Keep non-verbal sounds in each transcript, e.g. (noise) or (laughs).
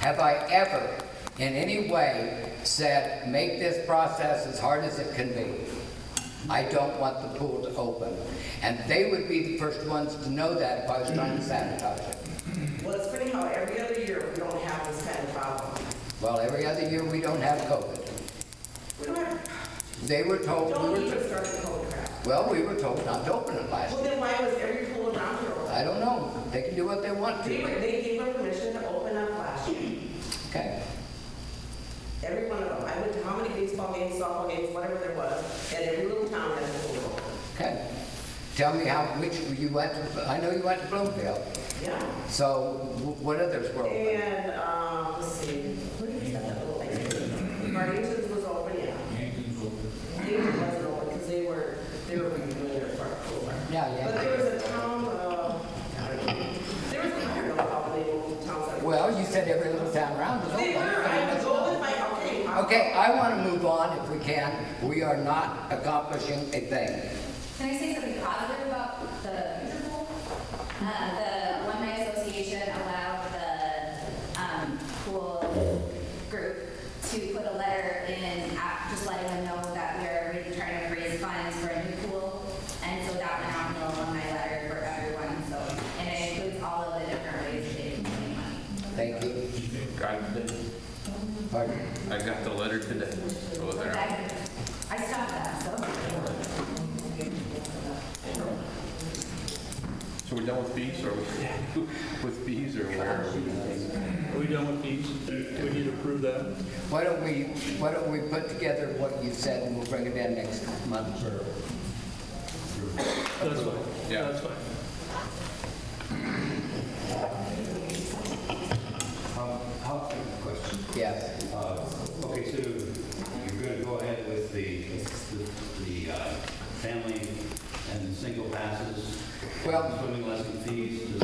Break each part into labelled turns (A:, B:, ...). A: Have I ever, in any way, said, make this process as hard as it can be? I don't want the pool to open. And they would be the first ones to know that if I was trying to sabotage it.
B: Well, it's funny how every other year we don't have this kind of problem.
A: Well, every other year, we don't have COVID.
B: We don't have,
A: They were told,
B: don't
A: we
B: need
A: were,
B: to start the whole crap.
A: well, we were told not to open it last
B: Well,
A: year.
B: then why was every pool around here open?
A: I don't know. They can do what they want
B: They,
A: to.
B: were- they gave her permission to open up last year,
A: Okay.
B: every one of them. I went to how many baseball games, softball games, whatever there was, and every little town had a pool open.
A: Okay. Tell me how, which, you went to, I know you went to Bloomfield,
B: Yeah.
A: so wh- what others were open?
B: And, um, let's see, what did we have that little thing? Guardians was open, yeah. They wasn't open because they were, they were redoing their park pool.
A: Yeah,
B: But
A: yeah.
B: there was a town, uh, I don't know, there was, I don't know how the name of the town was.
A: Well, you said every little town around was
B: They were, I was
A: open.
B: open with my, okay. I'm-
A: Okay, I want to move on if we can. We are not accomplishing a thing.
C: Can I say something positive about the Future Bowl? Uh, The Alumni Association allowed the um, pool group to put a letter in, uh, just letting them know that we're really trying to raise funds for a new pool. And so that went out in the alumni letter for everyone, so, and it includes all of the different ways they can make money.
A: Thank you.
D: Got it.
A: Pardon?
D: I got the letter today. It was
C: But
D: there.
C: I I stopped that, so.
D: So we're done with fees, or we- (laughs) with fees, or where are we?
E: Are we done with these? Do we need to approve that?
A: Why don't we, why don't we put together what you said and we'll bring it in next month?
E: That's fine.
D: Yeah.
E: That's fine.
F: Um, how, question,
A: Yes.
F: uh, okay, so you're gonna go ahead with the, the, the, uh, family and the single passes?
A: Well-
F: Swimming lesson fees as-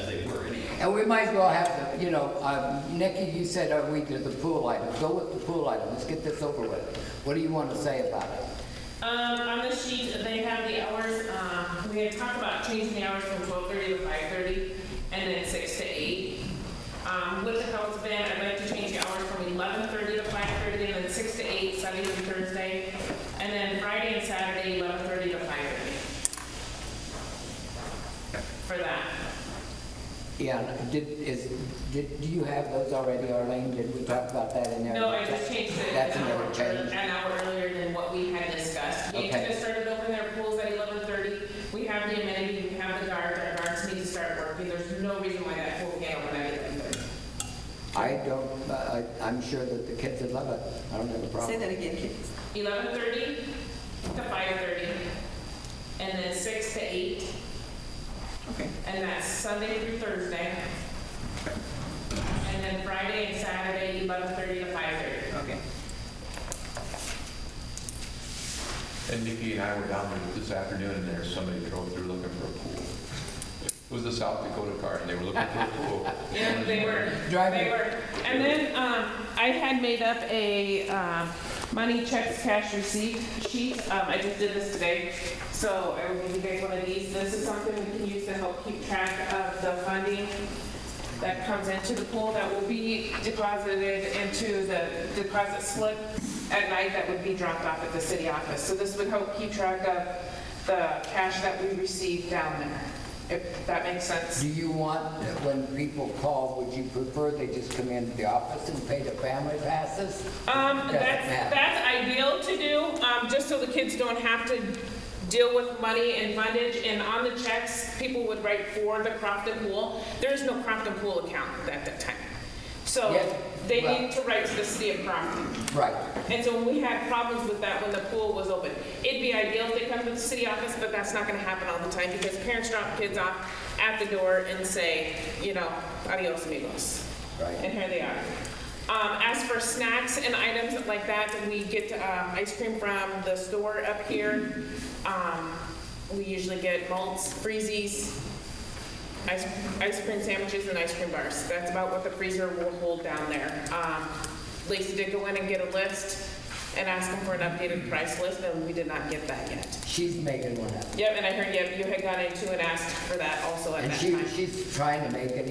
F: as they were anyhow?
A: And we might as well have, the you know, uh, Nikki, you said, are we to the pool item? Go with the pool item, let's get this over with. What do you want to say about it?
G: Um, on the sheet, they have the hours, um, we had talked about changing the hours from twelve thirty to five thirty, and then six to eight. Um, with the health ban, I'd like to change the hours from eleven thirty to five thirty, and then six to eight, Sunday through Thursday, and then Friday and Saturday, eleven thirty to five thirty. For that.
A: Yeah, and did, is, did, do you have those already, Arlene? Did we talk about that in there?
G: No, I just changed it
A: That's
G: an
A: another
G: hour-
A: change.
G: An hour earlier than what we had discussed. We
A: Okay.
G: could have started opening their pools at eleven thirty. We have the amenity, we have the guards, our guards need to start working. There's no reason why that pool can't open at eleven thirty.
A: I don't, uh, I- I'm sure that the kids would love it. I don't have a problem.
B: again, kids.
G: Eleven thirty to five thirty, and then six to eight,
B: Okay.
G: and that's Sunday through Thursday. And then Friday and Saturday, eleven thirty to five thirty.
B: Okay.
D: And Nikki and I were down there this afternoon, and there's somebody drove through looking for a pool. It was the South Dakota car, and they were looking for a pool.
G: (laughs) Yeah, they were.
A: Driving.
G: They were. And then, um, I had made up a, um, money checks cash receipt sheet. Um, I just did this today. So I will give you guys one of these. This is something we can use to help keep track of the funding that comes into the pool that will be deposited into the deposit slip at night that would be dropped off at the city office. So this would help keep track of the cash that we receive down there, if that makes sense.
A: Do you want, that when people call, would you prefer they just come into the office and pay the family passes?
G: Um,
A: Doesn't
G: that's,
A: matter.
G: that's ideal to do, um, just so the kids don't have to deal with money and fundage, and on the checks, people would write for the Crofton Pool. There's no Crofton Pool account at that time.
A: Yeah,
G: So they
A: well-
G: need to write to the city of Crofton.
A: Right,
G: And so we had problems with that when the pool was open. It'd be ideal if they come to the city office, but that's not gonna happen all the time, because parents drop kids off at the door and say, you know, adios amigos.
A: right.
G: And here they are. Um, as for snacks and items like that, we get um, ice cream from the store up here. Um, we usually get malts, freezies, ice, ice cream sandwiches, and ice cream bars. That's about what the freezer will hold down there. Um, Lacey did go in and get a list and ask them for an updated price list, and we did not get that yet.
A: She's making one up.
G: Yep, and I heard yep, you had gone in too and asked for that also at
A: And
G: that
A: she,
G: time.
A: she's trying to make it